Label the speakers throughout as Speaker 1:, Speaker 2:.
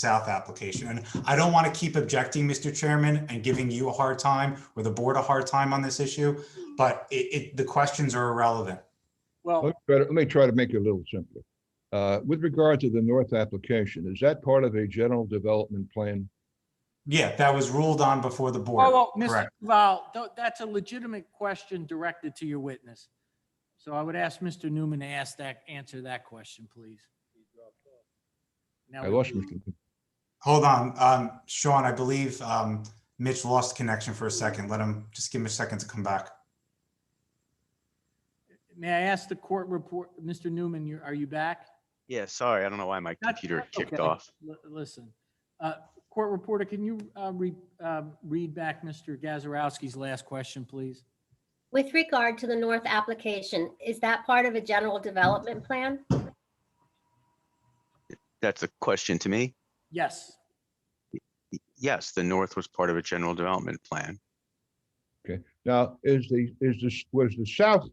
Speaker 1: South application. And I don't want to keep objecting, Mr. Chairman, and giving you a hard time or the board a hard time on this issue, but it, it, the questions are irrelevant.
Speaker 2: Well,
Speaker 3: Let me try to- let me try to make it a little simpler. Uh, With regard to the north application, is that part of a general development plan?
Speaker 1: Yeah, that was ruled on before the
Speaker 2: well,
Speaker 1: board.
Speaker 2: well, Mr.
Speaker 1: correct.
Speaker 2: Val, that's a legitimate question directed to your witness. So I would ask Mr. Newman to ask that, answer that question, please. Now
Speaker 3: I
Speaker 2: we-
Speaker 3: lost Mr. Kim.
Speaker 1: Hold on, um, Sean, I believe, um, Mitch lost connection for a second. Let him, just give him a second to come back.
Speaker 2: May I ask the court report, Mr. Newman, you- are you back?
Speaker 4: Yeah, sorry. I don't know why my
Speaker 2: That's-
Speaker 4: computer
Speaker 2: that's
Speaker 4: kicked
Speaker 2: okay.
Speaker 4: off.
Speaker 2: L- Listen, uh, court reporter, can you uh, re- um, read back Mr. Gazarovski's last question, please?
Speaker 5: With regard to the north application, is that part of a general development plan?
Speaker 4: That's a question to me.
Speaker 2: Yes,
Speaker 4: Y- Yes, the north was part of a general development plan.
Speaker 3: Now, is the, is this, was the south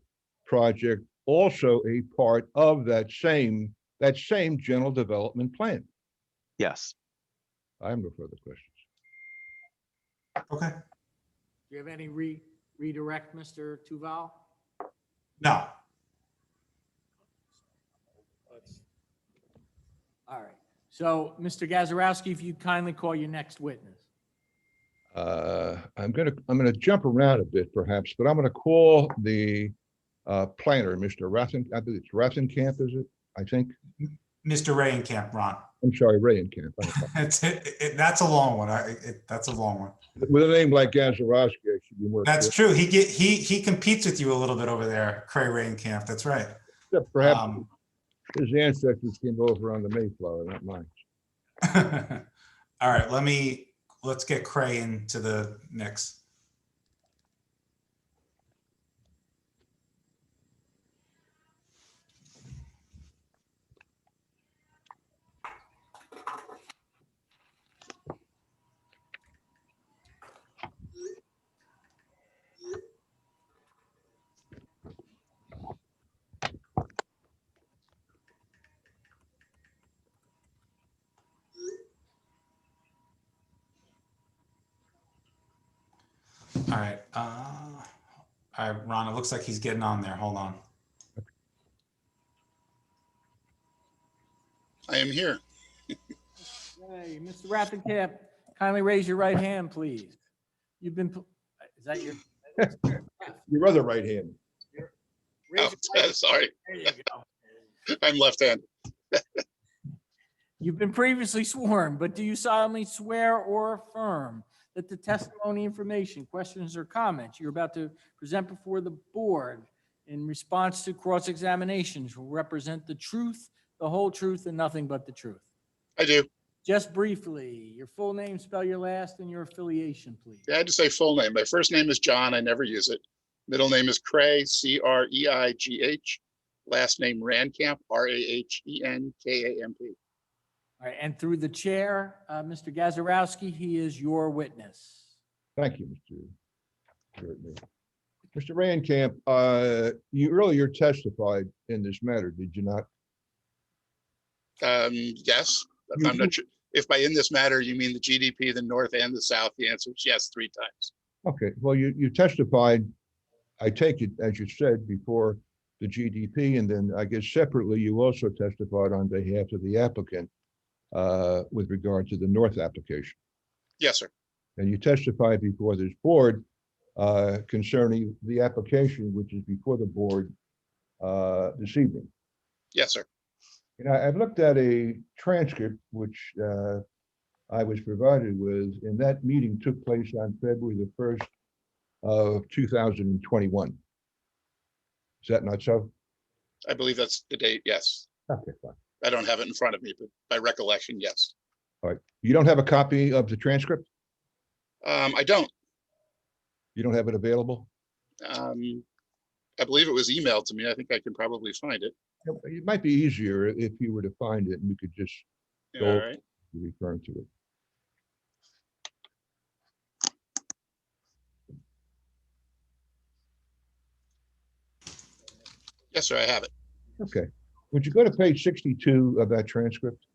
Speaker 3: project also a part of that same, that same general development plan?
Speaker 4: Yes,
Speaker 3: I have no further questions.
Speaker 1: Okay,
Speaker 2: do you have any re- redirect, Mr. Tuval?
Speaker 1: no,
Speaker 2: All right, so Mr. Gazarovski, if you'd kindly call your next witness.
Speaker 3: Uh, I'm gonna, I'm gonna jump around a bit perhaps, but I'm gonna call the uh, planner, Mr. Ratten, I think it's Rattenkamp, is it? I think,
Speaker 1: Mr. Rayenkamp, Ron.
Speaker 3: I'm sorry, Rayenkamp. I apologize.
Speaker 1: It's, it, it, that's a long one. I, it, that's a long one.
Speaker 3: With a name like Gazarovski, I should be more.
Speaker 1: That's
Speaker 3: careful.
Speaker 1: true. He get, he, he competes with you a little bit over there, Cray Rayenkamp. That's right.
Speaker 3: Except Perhaps
Speaker 1: Um,
Speaker 3: his ancestors came over on the Mayflower, not mine.
Speaker 1: All right, let me, let's get Cray into the mix. All right. uh, All right, Ron, it looks like he's getting on there. Hold on.
Speaker 6: I am here.
Speaker 2: Hey, Mr. Raffenkamp, kindly raise your right hand, please. You've been, pl- is that your?
Speaker 3: Your other right hand.
Speaker 2: raise your right-
Speaker 6: Oh, Sorry,
Speaker 2: there you go.
Speaker 6: I'm left-handed.
Speaker 2: You've been previously sworn, but do you solemnly swear or affirm that the testimony, information, questions, or comments you're about to present before the board in response to cross-examinations will represent the truth, the whole truth, and nothing but the truth?
Speaker 6: I do.
Speaker 2: Just briefly, your full name, spell your last, and your affiliation, please.
Speaker 6: Yeah, I just say full name. My first name is John. I never use it. Middle name is Cray, C R E I G H. Last name Rankamp, R A H E N K A M P.
Speaker 2: All right, and through the chair, uh, Mr. Gazarovski, he is your witness.
Speaker 3: Thank you, Mr. Gertner. Mr. Rayenkamp, uh, you earlier testified in this matter, did you not?
Speaker 6: Um, yes, but I'm
Speaker 2: Mm-hmm.
Speaker 6: not sure. If by in this matter, you mean the GDP, the North and the South, the answer is yes, three times.
Speaker 3: Okay, well, you, you testified, I take it, as you said, before the GDP, and then I guess separately, you also testified on behalf of the applicant uh, with regard to the North application.
Speaker 6: Yes, sir.
Speaker 3: And you testified before this board uh, concerning the application, which is before the board uh, this evening.
Speaker 6: Yes, sir.
Speaker 3: And I, I've looked at a transcript which uh, I was provided with, and that meeting took place on February the first of two thousand and twenty-one. Is that not so?
Speaker 6: I believe that's the date. Yes.
Speaker 3: Okay, fine.
Speaker 6: I don't have it in front of me, but by recollection, yes.
Speaker 3: You don't have a copy of the transcript?
Speaker 6: Um, I don't.
Speaker 3: You don't have it available?
Speaker 6: Um, I believe it was emailed to me. I think I can probably find it.
Speaker 3: It it might be easier if you were to find it and we could just
Speaker 6: All
Speaker 3: Go.
Speaker 6: right.
Speaker 3: refer to it.
Speaker 6: Yes, sir, I have it.
Speaker 3: Okay. Would you go to page sixty-two of that transcript?